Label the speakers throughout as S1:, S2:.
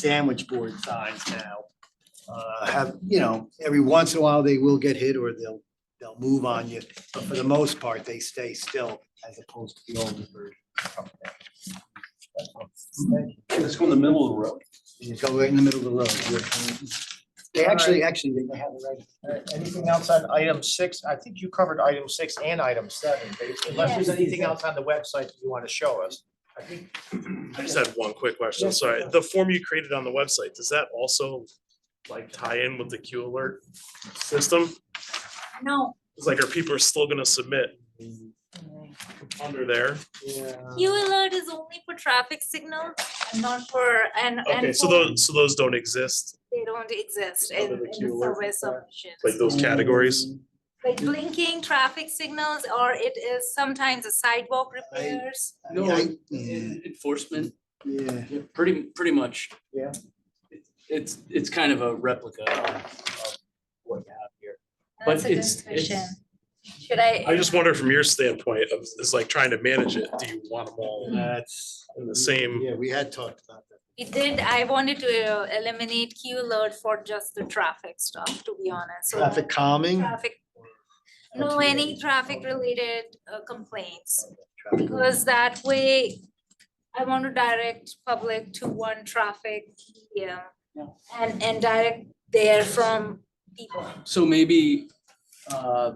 S1: sandwich board signs now. Uh, have, you know, every once in a while they will get hit or they'll, they'll move on you, but for the most part, they stay still as opposed to the older version.
S2: Let's go in the middle of the road.
S1: You go right in the middle of the road. you're- They actually, actually, they have it right.
S3: All right, Uh, Anything else on item six? I think you covered item six and item seven, basically, unless there's anything else on the website that you want to show us. I think,
S4: I just had one quick question,
S3: Yes,
S4: sorry.
S3: sure.
S4: The form you created on the website, does that also like tie in with the Q alert system?
S5: No,
S4: It's like, are people still gonna submit under there? Uh.
S5: Q alert is only for traffic signals and not for, and, and.
S4: Okay, so
S5: for-
S4: those, so those don't exist,
S5: They don't exist in,
S4: Under
S5: in
S4: the
S5: the
S4: Q alert,
S5: survey
S4: like
S5: submissions.
S4: those categories?
S5: Like blinking traffic signals, or it is sometimes a sidewalk
S1: I-
S5: repairs.
S2: No,
S1: Yeah,
S2: en-
S1: yeah,
S2: enforcement,
S1: Yeah.
S2: yeah, pretty, pretty much.
S3: Yeah.
S2: It- It's, it's kind of a replica of of what you have here.
S5: That's
S2: But
S5: a
S2: it's-
S5: good question.
S2: it's-
S5: Should I?
S4: I just wonder from your standpoint of, it's like trying to manage it, do you want them all
S1: That's,
S4: in the same?
S1: yeah, we had talked about that.
S5: We did, I wanted to uh, eliminate Q alert for just the traffic stuff, to be honest. so
S1: Traffic calming.
S5: Traffic, no, any traffic related uh, complaints.
S1: Traffic-
S5: Because that way, I want to direct public to one traffic yeah,
S2: Yeah.
S5: And, and direct there from people.
S2: So maybe, uh,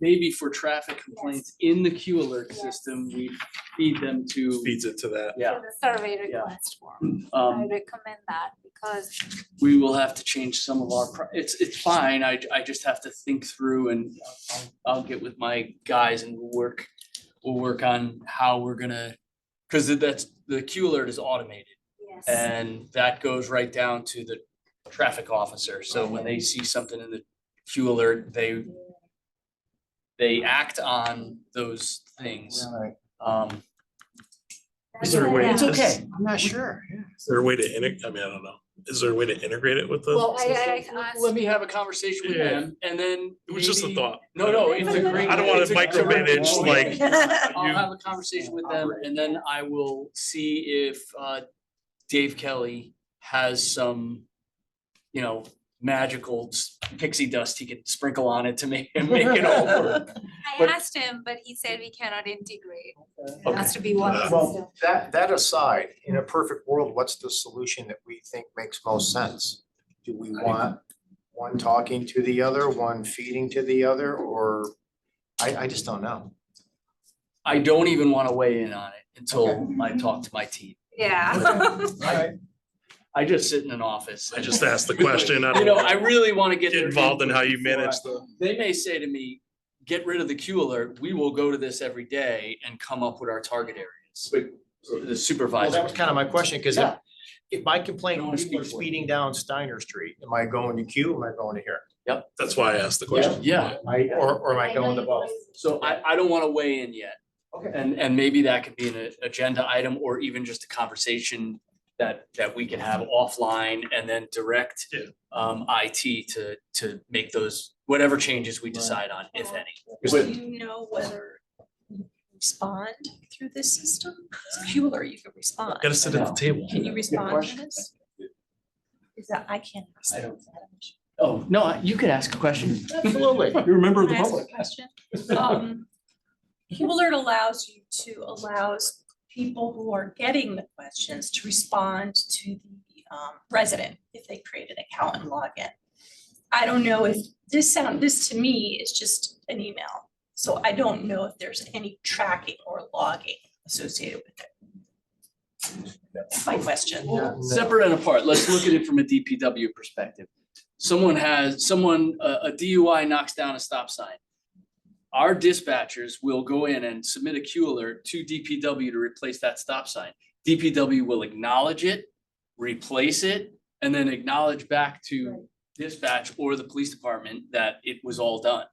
S2: maybe for traffic complaints in the Q alert
S5: Yes.
S2: system, we feed them to,
S4: Feeds it to that.
S2: yeah.
S5: For the survey
S2: Yeah.
S5: request form. I
S2: Um,
S5: recommend that because,
S2: we will have to change some of our, pro- it's, it's fine, I, I just have to think through and I'll- I'll get with my guys and we'll work, we'll work on how we're gonna, cause that's, the Q alert is automated.
S5: yes,
S2: And that goes right down to the traffic officer, so when they see something in the Q alert, they they act on those things,
S3: Right.
S2: um,
S4: Is there a way?
S5: That's
S3: It's
S5: what
S3: okay, I'm not sure.
S4: Is there a way to integrate, I mean, I don't know. Is there a way to integrate it with the,
S5: Well, I- I- I asked-
S2: let me have a conversation with
S4: Yeah.
S2: them, and then
S4: it was just a
S2: maybe-
S4: thought.
S2: No, no, it's a great.
S4: I don't wanna
S2: it's a great-
S4: micromanage, like,
S2: I'll
S4: you-
S2: have a conversation with them and then I will see if uh Dave Kelly has some, you know, magical s- pixie dust he could sprinkle on it to make make it all work.
S5: I
S2: but-
S5: asked him, but he said we cannot integrate. It
S2: Okay.
S5: has to be one
S4: Uh,
S5: system.
S3: Well, that, that aside, in a perfect world, what's the solution that we think makes most sense? Do we want one talking to the other, one feeding to the other, or, I, I just don't know.
S2: I don't even wanna weigh in on it until I talk to my team.
S5: Yeah.
S2: I just sit in an office.
S4: I just asked the question. I
S2: You know,
S4: don't
S2: I really wanna get
S4: get
S2: their
S4: involved in
S2: input
S4: how you
S2: before I-
S4: manage the,
S2: They may say to me, get rid of the Q alert, we will go to this every day and come up with our target areas. The
S3: Well,
S2: supervisor.
S3: that was kind of my question, because if,
S2: Yeah.
S3: if my complaint,
S2: Don't wanna
S3: people are
S2: speak for it.
S3: speeding down Steiner Street, am I going to Q, am I going to here?
S4: that's why I asked the question.
S2: Yeah,
S3: I, or, or am I
S5: know
S3: going to
S5: you
S3: both?
S5: guys-
S2: So I, I don't wanna weigh in yet,
S3: Okay.
S2: and, and maybe that could be an agenda item or even just a conversation that, that we can have offline and then direct
S4: Yeah.
S2: um, IT to, to make those, whatever changes we decide on, if any.
S6: Do you know whether you respond through this system? It's Q alert, you can respond.
S4: Gotta sit at the table.
S6: Can you respond to
S2: question.
S6: this? Is that, I can't. respond to that.
S2: Oh, no, you could ask a question.
S3: Absolutely.
S2: You're a member
S6: Can I ask a question? Um, Q alert allows you to, allows people who are getting the questions to respond to the um, resident if they create an account and log in. I don't know if, this sound, this to me is just an email. So I don't know if there's any tracking or logging associated with it. That's my question.
S3: No, no.
S2: Separate and apart, let's look at it from a DPW perspective. Someone has, someone, a, a DUI knocks down a stop sign. Our dispatchers will go in and submit a Q alert to DPW to replace that stop sign. DPW will acknowledge it, replace it, and then acknowledge back to dispatch or the police department that it was all done.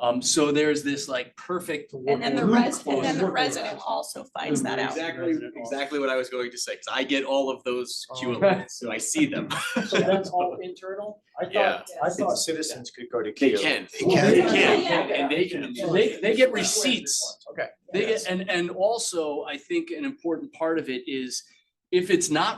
S2: Um, so there's this like perfect.
S6: And then the
S2: res-
S6: resident, and then the resident also finds that out.
S7: Exactly,
S2: Resident officer.
S7: exactly what I was going to say, because I get all of those
S3: Oh.
S7: Q alerts, so I see them.
S3: So that's all internal? I
S7: Yeah.
S3: thought, I thought citizens could go to
S7: They
S3: Q.
S7: can.
S3: They
S2: can.
S7: And- And they can.
S2: And they, they get receipts.
S3: Okay.
S2: They get, and, and also, I think an important part of it is if it's not